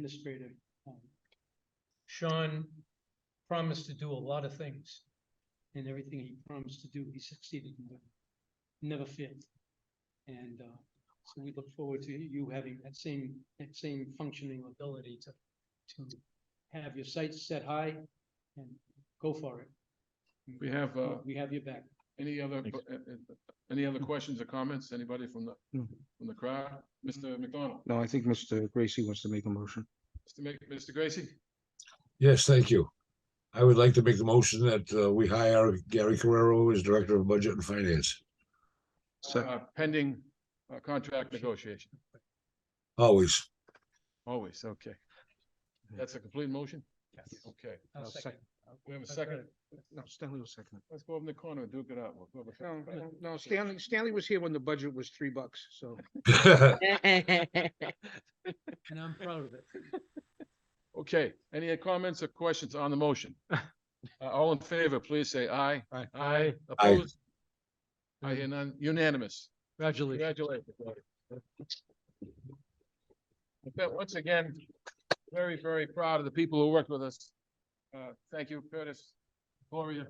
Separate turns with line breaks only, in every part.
administrative. um, Sean promised to do a lot of things. And everything he promised to do, he succeeded in doing. Never failed. And, uh, so we look forward to you having that same, that same functioning ability to, to have your sights set high and go for it.
We have, uh,
We have your back.
any other,
Thanks.
uh, uh, any other questions or comments? Anybody from the,
No.
from the crowd? Mr. McDonald,
No, I think Mr. Gracie wants to make a motion.
Mr. Mc- Mr. Gracie?
Yes, thank you. I would like to make the motion that uh, we hire Gary Carrero as Director of Budget and Finance.
Second.
Uh, Pending, uh, contract negotiation,
Always.
always, okay. That's a complete motion? Okay,
I'll
I'll
second.
we have a second.
No, Stanley will second.
Let's go over in the corner, and duke it out. We'll go
No,
over-
no, no, Stanley, Stanley was here when the budget was three bucks, so.
And I'm proud of it.
Okay, any comments or questions on the motion? Uh, all in favor, please say aye.
Aye.
Aye, opposed? I hear none, unanimous.
Congratulations.
Congratulations. I felt Once again, very, very proud of the people who worked with us. Uh, thank you, Curtis, Gloria.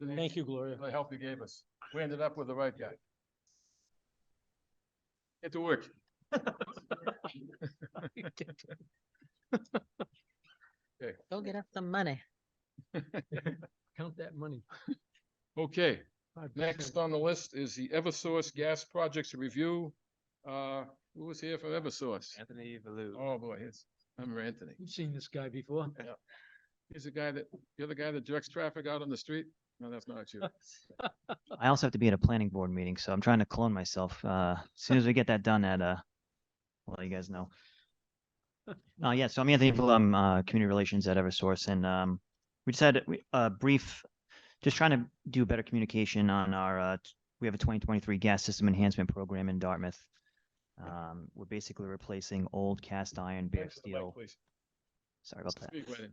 Denise,
Thank you, Gloria.
for The help you gave us. We ended up with the right guy. Get to work.
Go get us some money.
Count that money.
Okay,
5%.
Next on the list is the Eversource Gas Projects Review. Uh, who was here from Eversource?
Anthony Valu.
Oh, boy, it's, I remember Anthony.
You've seen this guy before.
He's the guy that, you're the guy that directs traffic out on the street? No, that's not you.
I also have to be at a planning board meeting, so I'm trying to clone myself. Uh, as soon as we get that done at, uh, well, you guys know. Uh, yeah, so I'm Anthony Valu, I'm, uh, Community Relations at Eversource, and, um, we just had we- a brief, just trying to do better communication on our, uh, t- we have a twenty twenty-three gas system enhancement program in Dartmouth. Um, we're basically replacing old cast iron, bare
Thanks for the mic,
steel.
please.
Sorry about that.
Speak right in.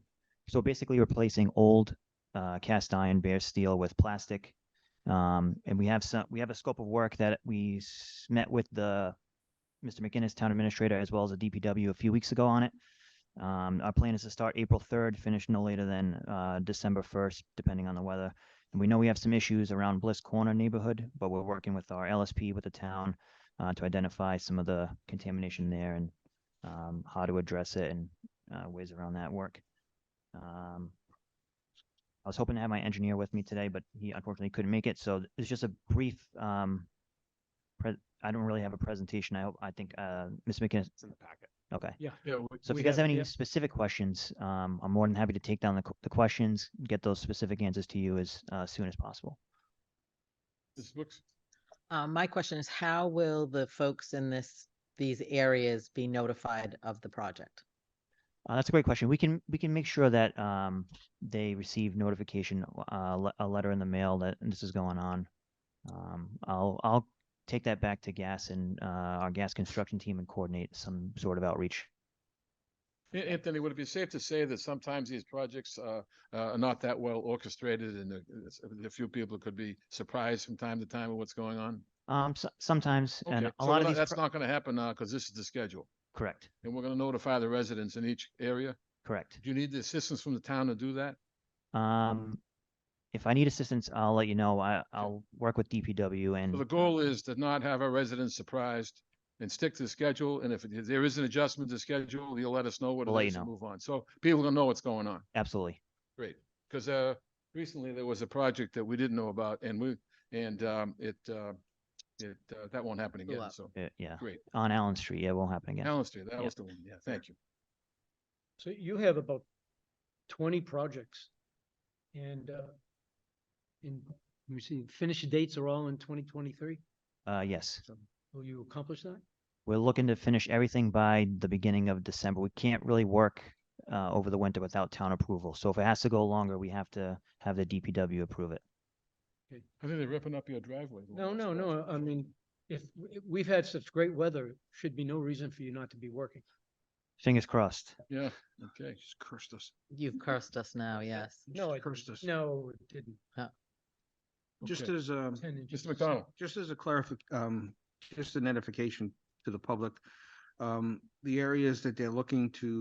so basically replacing old uh, cast iron bare steel with plastic um, and we have some we have a scope of work that we s- met with the mr mcginnis town administrator as well as the dpw a few weeks ago on it um, our plan is to start april 3rd finish no later than uh, december 1st depending on the weather and we know we have some issues around bliss corner neighborhood but we're working with our lsp with the town uh, to identify some of the contamination there and um, how to address it and uh, ways around that work um, I was hoping to have my engineer with me today, but he unfortunately couldn't make it. So th- it's just a brief. Um, pre- I don't really have a presentation. I hope. I think uh, Ms. McKinnis. It's in the packet. Okay.
Yeah.
Yeah, we-
So if
We
you
have-
guys have uh, any
yeah.
specific questions, um, I'm more than happy to take down the, q- the questions, get those specific answers to you as uh, soon as possible.
this looks,
Uh, my question is, how will the folks in this, these areas be notified of the project?
Uh, that's a great question. We can we can make sure that um, they receive notification, uh, le- a letter in the mail that this is going on. Um, I'll I'll take that back to gas and uh, our gas construction team and coordinate some sort of outreach.
A- Anthony, would it be safe to say that sometimes these projects, uh, uh, are not that well orchestrated and uh, it's- a few people could be surprised from time to time with what's going on?
Um, so, sometimes and
Okay,
a
so
lot
we're
of
not-
these
That's
pro-
not gonna happen now, because this is the schedule,
correct,
and we're gonna notify the residents in each area.
correct.
Do you need the assistance from the town to do that?
Mm-hmm. Um, if I need assistance, I'll let you know. I I'll work with DPW and
So the goal is to not have our residents surprised and stick to the schedule. And if it- there is an adjustment to schedule, you'll let us know what
We'll let
it
you
is and
know.
move on. So people will know what's going on.
absolutely
Because uh, recently there was a project that we didn't know about and we, and um, it, uh, it, uh, that won't happen
Blew
again.
up.
So
uh, yeah
great.
on Allen Street. Yeah, it won't happen again.
Allen Street, that
Yeah.
was the one. Yeah, thank you.
So you have about twenty projects. And, uh, in, let me see, finish dates are all in twenty twenty-three.
Uh, yes.
Will you accomplish that?
we're looking to finish everything by the beginning of December. We can't really work uh, over the winter without town approval. So if it has to go longer, we have to have the DPW approve it.
I think they're ripping up your driveway. the
No,
last
no, no.
project.
I mean, if, w- we've had such great weather, should be no reason for you not to be working.
Fingers crossed.
Yeah, okay.
Just cursed us.
You've cursed us now, yes.
No, it
Cursed us.
No, it didn't.
Just
Okay.
as, um,
Ten inches.
Mr. McDonald,
just as a clarific, um, just a notification to the public. Um, the areas that they're looking to